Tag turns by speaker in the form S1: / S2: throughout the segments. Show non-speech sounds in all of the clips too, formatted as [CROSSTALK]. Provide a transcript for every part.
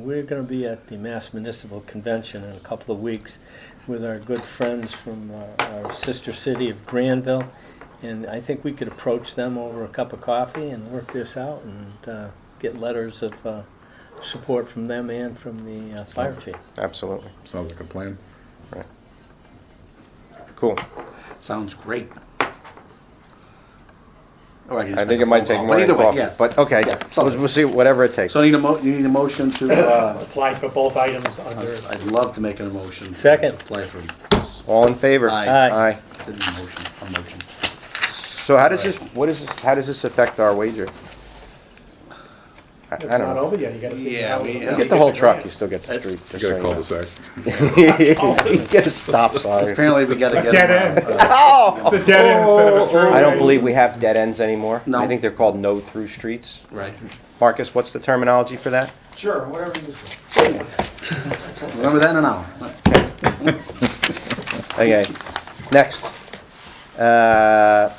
S1: We're going to be at the Mass Municipal Convention in a couple of weeks with our good friends from uh, our sister city of Granville. And I think we could approach them over a cup of coffee and work this out and uh, get letters of uh, support from them and from the uh, fire chief.
S2: Absolutely.
S3: Sounds like a plan.
S2: Right. Cool.
S4: Sounds great. Or I can just
S2: I
S4: make
S2: think
S4: a
S2: it might
S4: phone
S2: take
S4: call.
S2: more
S4: But
S2: than
S4: either way,
S2: coffee,
S4: yeah.
S2: but okay,
S4: Yeah,
S2: so we'll see, whatever it takes.
S4: So I need a mo, you need a motion to, uh,
S5: apply for both items under,
S4: I'd love to make an motion.
S1: Second.
S4: Apply for,
S2: All in favor?
S4: Aye.
S1: Aye.
S2: Aye.
S4: it's in the motion, a motion.
S2: So how does this, what is this, how does this affect our wager? I I
S5: it's
S2: don't
S5: not
S2: know.
S5: over yet, you gotta see.
S4: Yeah,
S5: how-
S4: we-
S5: you
S4: You
S2: You get the whole truck, you still get the street.
S3: You
S2: just
S3: got a
S2: so
S3: cul-de-sac.
S2: You [LAUGHS] know. You get a stop sign.
S4: Apparently, we gotta
S5: A
S4: get.
S5: [LAUGHS] dead
S4: them,
S5: end.
S4: uh,
S5: It's a dead
S6: Oh,
S5: end instead of a throughway.
S2: I don't believe we have dead ends anymore.
S4: No.
S2: I think they're called no-through streets.
S4: Right.
S2: Marcus, what's the terminology for that?
S6: Sure, whatever you,
S4: Remember that in an hour.
S2: Okay, next. Uh,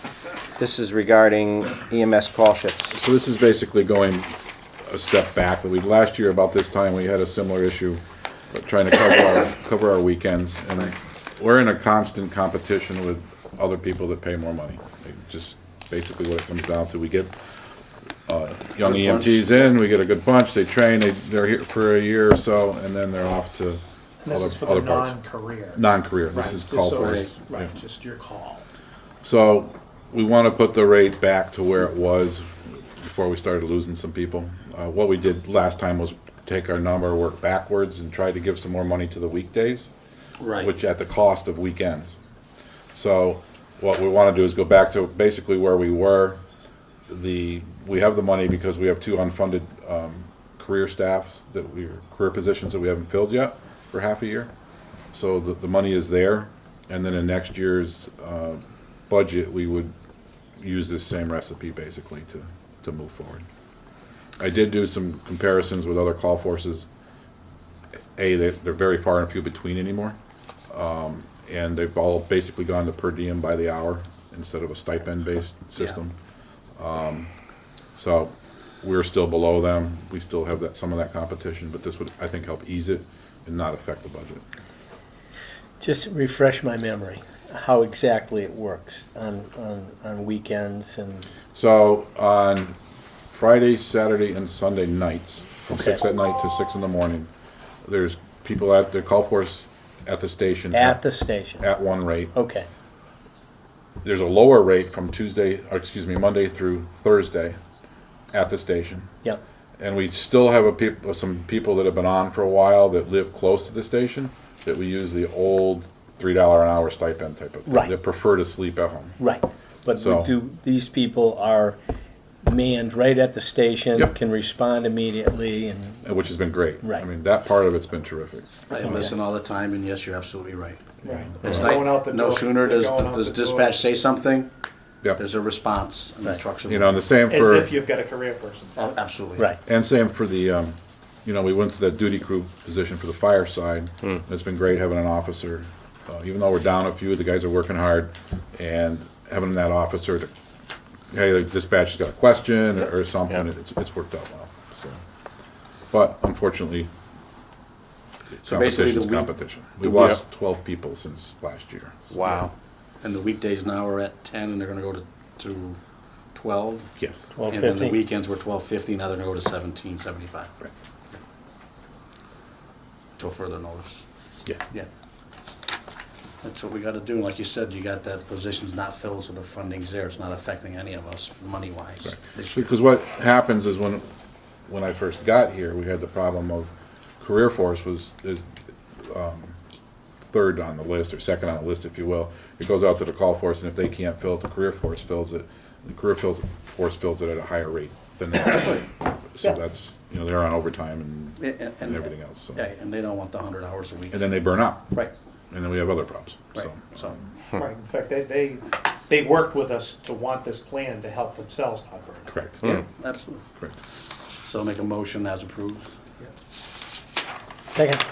S2: This is regarding EMS call shifts.
S3: So this is basically going a step back. We, last year about this time, we had a similar issue, uh, trying to cover
S4: [COUGHS]
S3: our, cover our weekends. And we're in a constant competition with other people that pay more money. It Just basically what it comes down to. We get uh, young
S4: Good bunch.
S3: EMTs in, we get a good bunch, they train, they, they're here for a year or so, and then they're off to
S5: This
S3: other,
S5: is for the
S3: other parts.
S5: non-career.
S3: Non-career,
S5: Right,
S3: this is
S5: just
S3: call
S5: so
S3: for.
S5: it's- Right, just your call.
S3: So we want to put the rate back to where it was before we started losing some people. Uh, What we did last time was take our number, work backwards, and try to give some more money to the weekdays, which
S4: Right.
S3: at the cost of weekends. So what we want to do is go back to basically where we were. The, we have the money because we have two unfunded um, career staffs that we, career positions that we haven't filled yet for half a year. So the, the money is there, and then in next year's uh, budget, we would use this same recipe basically to, to move forward. I did do some comparisons with other call forces. A, they- they're very far and few between anymore, um, and they've all basically gone to per diem by the hour instead of a stipend-based system. Um, So we're still below them. We still have that, some of that competition, but this would, I think, help ease it and not affect the budget.
S1: Just refresh my memory, how exactly it works on, on, on weekends and
S3: So on Friday, Saturday, and Sunday nights, from six at night to six in the morning, there's people at the call force at the station.
S1: at the Oh. station.
S3: At one rate.
S1: Okay,
S3: There's a lower rate from Tuesday, or excuse me, Monday through Thursday at the station.
S1: yep,
S3: And we still have a peop- some people that have been on for a while that live close to the station, that we use the old three dollar an hour stipend type of thing.
S1: Right.
S3: That prefer to sleep at home.
S1: right. But we
S3: So-
S1: do, these people are manned right at the station,
S3: Yep.
S1: can respond immediately and
S3: Which has been great. I
S1: Right.
S3: mean, that part of it's been terrific.
S4: I listen all the time, and yes, you're absolutely right.
S5: Right.
S4: It's
S5: They're going out
S4: like,
S5: the
S4: no
S5: door-
S4: sooner
S5: they're
S4: does,
S5: going out
S4: does
S5: the door
S4: dispatch say something,
S3: Yep.
S4: there's a response, and the
S1: Right.
S4: trucks are.
S3: You know, and the same
S5: As
S3: for,
S5: if you've got a career person.
S2: Uh,
S4: Oh, Absolutely.
S1: Right,
S3: and same for the, um, you know, we went to that duty crew position for the fire side.
S4: Hmm.
S3: and It's been great having an officer, uh, even though we're down a few, the guys are working hard, and having that officer to, hey, the dispatcher's got a question or- or something, it's, it's worked out well, so. But unfortunately,
S4: So basically, the
S3: competition's
S4: week,
S3: competition. We
S4: the
S3: lost twelve people since last year.
S2: Wow.
S4: and the weekdays now are at ten, and they're gonna go to, to twelve.
S3: Yes.
S1: twelve
S4: And then the
S1: fifty.
S4: weekends were twelve fifty, now they're gonna go to seventeen seventy-five,
S3: Right.
S4: till further notice.
S3: Yeah.
S4: Yeah. That's what we gotta do, like you said, you got that position's not filled, so the funding's there, it's not affecting any of us money-wise. This year.
S3: Because what happens is when, when I first got here, we had the problem of career force was, is, um, third on the list or second on the list, if you will. It goes out to the call force and if they can't fill it, the career force fills it. The career fills, force fills it at a higher rate than that. So
S4: Yeah.
S3: that's, you know, they're on overtime
S4: Yeah,
S3: and,
S4: and-
S3: and everything else, so.
S4: Yeah, and they don't want the hundred hours a week.
S3: And then they burn out.
S4: Right,
S3: And then we have other problems,
S4: right,
S3: so.
S4: so,
S5: Right, in fact, they, they, they worked with us to want this plan to help themselves not burn out.
S3: Correct,
S4: yeah, absolutely.
S3: correct.
S4: So I'll make a motion as approved.
S1: Second,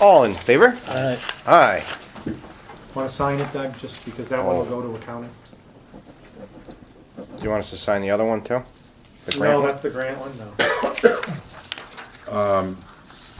S2: All in favor?
S1: all right.
S2: Aye.
S6: wanna sign it, Doug, just because that one will go
S2: Oh.
S6: to accounting?
S2: Do you want us to sign the other one too? The grant
S5: No,
S2: one?
S5: that's the grant one, no.